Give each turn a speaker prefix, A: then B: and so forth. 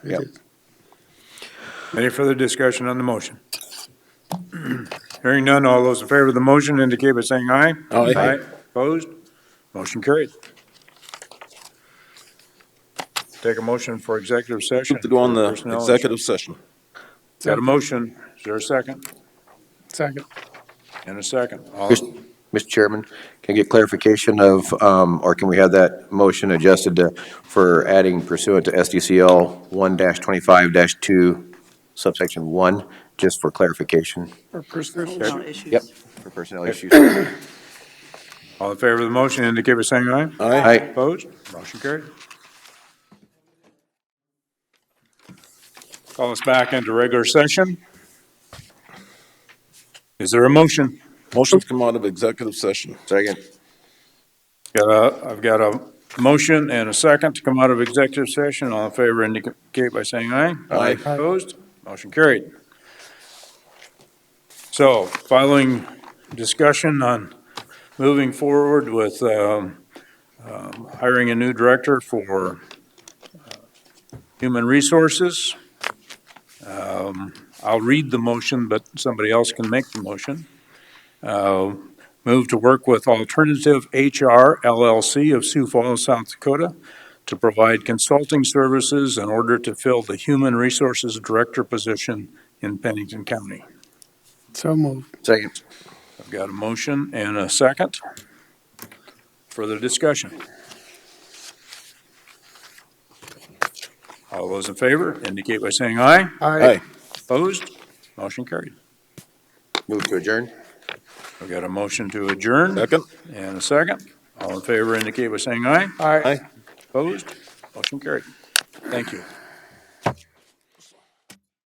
A: It
B: Yep.
A: is.
C: Any further discussion on the motion? Hearing none, all those in favor of the motion indicate by saying aye.
A: Aye.
C: Opposed? Motion carried. Take a motion for executive session.
B: To go on the
C: Personnel issue.
B: executive session.
C: Got a motion, is there a second?
A: Second.
C: And a second. All-
D: Mr. Mr. Chairman, can I get clarification of, um, or can we have that motion adjusted to, for adding pursuant to SDCL one twenty-five two subsection one, just for clarification
A: Or personnel.
E: Personnel issues.
D: Yep. for personnel issues?
C: All in favor of the motion indicate by saying aye.
B: Aye.
D: Aye.
C: Opposed? Motion carried. Call us back into regular session. Is there a motion?
B: Motion to come out of executive session.
D: Second.
C: Got a, I've got a motion and a second to come out of executive session. All in favor indicate by saying aye.
B: Aye.
C: Opposed? Motion carried. So following discussion on moving forward with um, um, hiring a new director for uh, human resources, um, I'll read the motion, but somebody else can make the motion. Uh, Move to work with Alternative HR LLC of Sioux Falls, South Dakota to provide consulting services in order to fill the Human Resources Director position in Pennington County.
A: So moved.
D: Second.
C: I've got a motion and a second. Further discussion? All those in favor indicate by saying aye.
A: Aye.
C: Opposed? Motion carried.
D: Move to adjourn?
C: I've got a motion to adjourn
B: Second?
C: and a second. All in favor indicate by saying aye.
A: Aye.
B: Aye.
C: Opposed? Motion carried. Thank you.